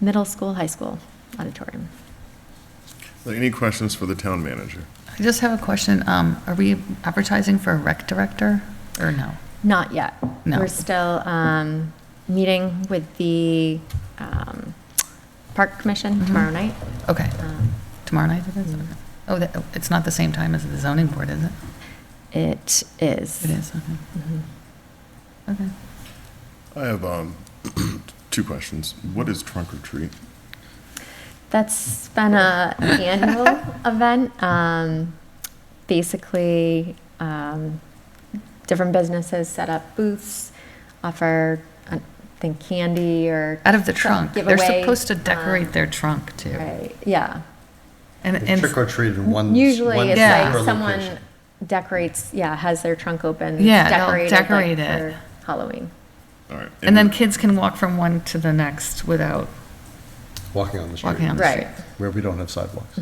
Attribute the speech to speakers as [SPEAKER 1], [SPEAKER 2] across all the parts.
[SPEAKER 1] middle school, high school auditorium.
[SPEAKER 2] Any questions for the town manager?
[SPEAKER 3] I just have a question. Um, Are we advertising for a rec director or no?
[SPEAKER 1] Not yet.
[SPEAKER 3] No.
[SPEAKER 1] We're still um, meeting with the um, Park
[SPEAKER 3] Mm-hmm.
[SPEAKER 1] Commission tomorrow night.
[SPEAKER 3] Okay,
[SPEAKER 1] Um,
[SPEAKER 3] tomorrow night it is? Okay. Oh, that- oh, it's not the same time as the zoning board, is it?
[SPEAKER 1] It is.
[SPEAKER 3] It is, okay.
[SPEAKER 1] Mm-hmm.
[SPEAKER 3] Okay.
[SPEAKER 2] I have um, two questions. What is trunk or treat?
[SPEAKER 1] That's been a annual event. Um, basically, um, different businesses set up booths, offer, uh, I think, candy or
[SPEAKER 3] Out of the
[SPEAKER 1] some
[SPEAKER 3] trunk. They're
[SPEAKER 1] giveaway.
[SPEAKER 3] supposed to
[SPEAKER 1] Um,
[SPEAKER 3] decorate their trunk too.
[SPEAKER 1] Right. Yeah.
[SPEAKER 3] And,
[SPEAKER 4] They
[SPEAKER 3] and,
[SPEAKER 4] Trick or treat in one.
[SPEAKER 1] Usually,
[SPEAKER 4] one
[SPEAKER 1] it's
[SPEAKER 3] Yeah.
[SPEAKER 1] like
[SPEAKER 4] separate
[SPEAKER 1] someone
[SPEAKER 4] location.
[SPEAKER 1] decorates. Yeah, has their trunk open.
[SPEAKER 3] Yeah, they'll
[SPEAKER 1] decorated, like,
[SPEAKER 3] decorate it.
[SPEAKER 1] for Halloween.
[SPEAKER 2] All right.
[SPEAKER 3] and then kids can walk from one to the next without
[SPEAKER 4] Walking on the street.
[SPEAKER 3] walking on the
[SPEAKER 1] Right. Mhm.
[SPEAKER 3] street.
[SPEAKER 4] Where we don't have sidewalks.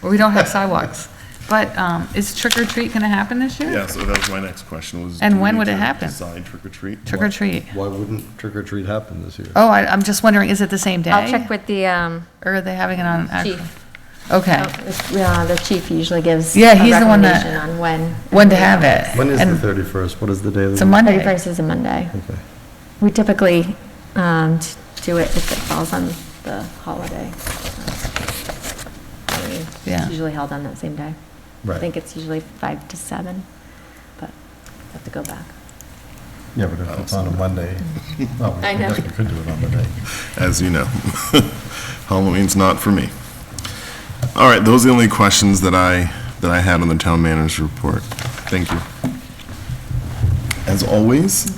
[SPEAKER 3] Well, We don't have sidewalks. But um, is trick or treat going to happen this year?
[SPEAKER 2] Yeah, so that was my next question was.
[SPEAKER 3] And
[SPEAKER 2] do we
[SPEAKER 3] when
[SPEAKER 2] need
[SPEAKER 3] would it
[SPEAKER 2] to
[SPEAKER 3] happen?
[SPEAKER 2] Design trick or treat?
[SPEAKER 3] Trick or treat.
[SPEAKER 4] Why wouldn't trick or treat happen this year?
[SPEAKER 3] Oh, I, I'm just wondering, is it the same day?
[SPEAKER 1] I'll check with the um,
[SPEAKER 3] Or are they having it on? actual-
[SPEAKER 1] Chief. Oh,
[SPEAKER 3] Okay.
[SPEAKER 1] Yeah, the chief usually gives.
[SPEAKER 3] Yeah,
[SPEAKER 1] a
[SPEAKER 3] he's the one that-
[SPEAKER 1] recommendation On when.
[SPEAKER 3] When to have it.
[SPEAKER 4] When is
[SPEAKER 3] And
[SPEAKER 4] the 31st? What is the day of the?
[SPEAKER 3] It's a
[SPEAKER 4] week?
[SPEAKER 3] Monday.
[SPEAKER 1] Thirty-first is a Monday.
[SPEAKER 4] Okay.
[SPEAKER 1] We typically um, t- do it if it falls on the holiday.
[SPEAKER 3] Yeah.
[SPEAKER 1] It's usually held on that same day. I
[SPEAKER 4] Right.
[SPEAKER 1] think it's usually five to seven, but I have to go back.
[SPEAKER 4] Yeah, but if it's on a Monday, well, we
[SPEAKER 1] I know.
[SPEAKER 4] could- we could do it on the day.
[SPEAKER 2] As you know, Halloween's not for me. All right, those are the only questions that I, that I had on the town manager's report. Thank you. As always,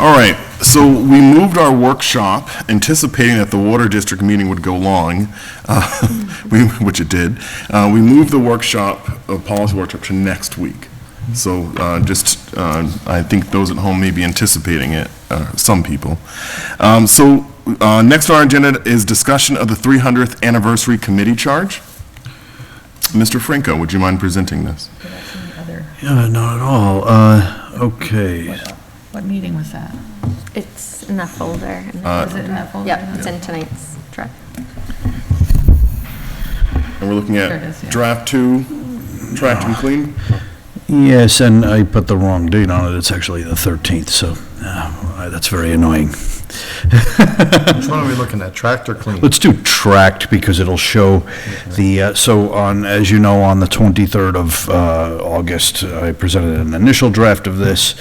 [SPEAKER 2] All right, so we moved our workshop anticipating that the Water District meeting would go long, uh, we- which it did. Uh, We moved the workshop, uh, policy workshop, to next week. So uh, just, uh, I think those at home may be anticipating it, uh, some people. Um, So uh, next on our agenda is discussion of the 300th Anniversary Committee Charge. Mr. Franco, would you mind presenting this?
[SPEAKER 5] Yeah, not at all. Uh, okay.
[SPEAKER 3] What meeting was that?
[SPEAKER 1] It's in that folder. in the-
[SPEAKER 3] Was it in that folder?
[SPEAKER 1] Yep, Uh, it's in tonight's draft.
[SPEAKER 2] And we're looking
[SPEAKER 3] There it is, yeah.
[SPEAKER 2] at draft two, tracked and clean?
[SPEAKER 5] Yes, and I put the wrong date on it. It's actually the 13th, so uh, that's very annoying.
[SPEAKER 4] Which one are we looking at? Tractor clean?
[SPEAKER 5] Let's do tracked because it'll show the, uh, so on, as you know, on the 23rd of uh, August, I presented an initial draft of this.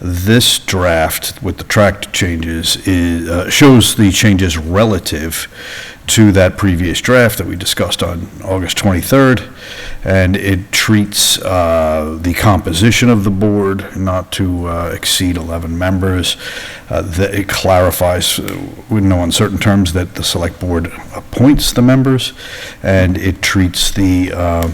[SPEAKER 5] This draft with the tracked changes is, uh, shows the changes relative to that previous draft that we discussed on August 23rd. And it treats uh, the composition of the board not to uh, exceed 11 members. Uh, that It clarifies, uh, in no uncertain terms, that the select board appoints the members, and it treats the uh,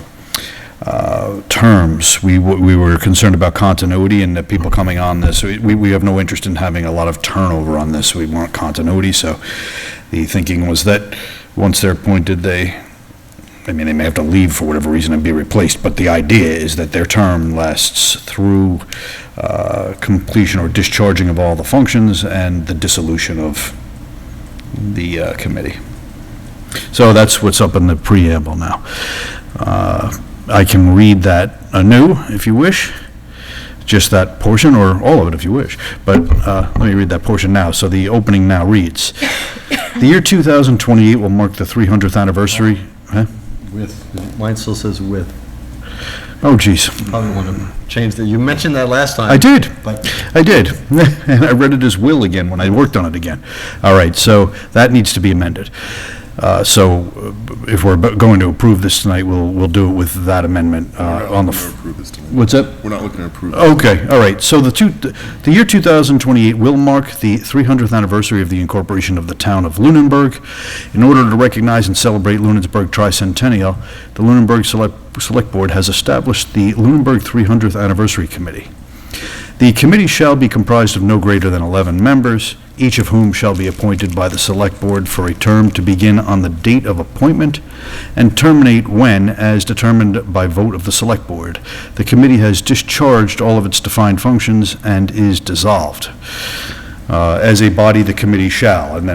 [SPEAKER 5] uh, terms. We w- we were concerned about continuity and the people coming on this. We we have no interest in having a lot of turnover on this. We want continuity, so the thinking was that once they're appointed, they I mean, they may have to leave for whatever reason and be replaced, but the idea is that their term lasts through uh, completion or discharging of all the functions and the dissolution of the uh, committee. So that's what's up in the preamble now. Uh, I can read that anew, if you wish, just that portion, or all of it if you wish, but uh, let me read that portion now. So the opening now reads, "The year 2028 will mark the 300th anniversary." Huh?
[SPEAKER 4] With, mine still says with.
[SPEAKER 5] Oh, geez.
[SPEAKER 4] Probably want to change that. You mentioned that last time.
[SPEAKER 5] I did.
[SPEAKER 4] But
[SPEAKER 5] I did. And I read it as will again when I worked on it again. All right, so that needs to be amended. Uh, So uh, if we're bu- going to approve this tonight, we'll, we'll do it with that amendment uh, on
[SPEAKER 2] We're not looking
[SPEAKER 5] the,
[SPEAKER 2] to
[SPEAKER 5] f-
[SPEAKER 2] approve this tonight.
[SPEAKER 5] what's that?
[SPEAKER 2] We're not looking to approve. it.
[SPEAKER 5] Okay, all right, so the two, the year 2028 will mark the 300th anniversary of the incorporation of the town of Lunenburg. In order to recognize and celebrate Lunenburg tricentennial, the Lunenburg Select Select Board has established the Lunenburg 300th Anniversary Committee. The committee shall be comprised of no greater than 11 members, each of whom shall be appointed by the Select Board for a term to begin on the date of appointment and terminate when, as determined by vote of the Select Board. The committee has discharged all of its defined functions and is dissolved. Uh, As a body, the committee shall, and then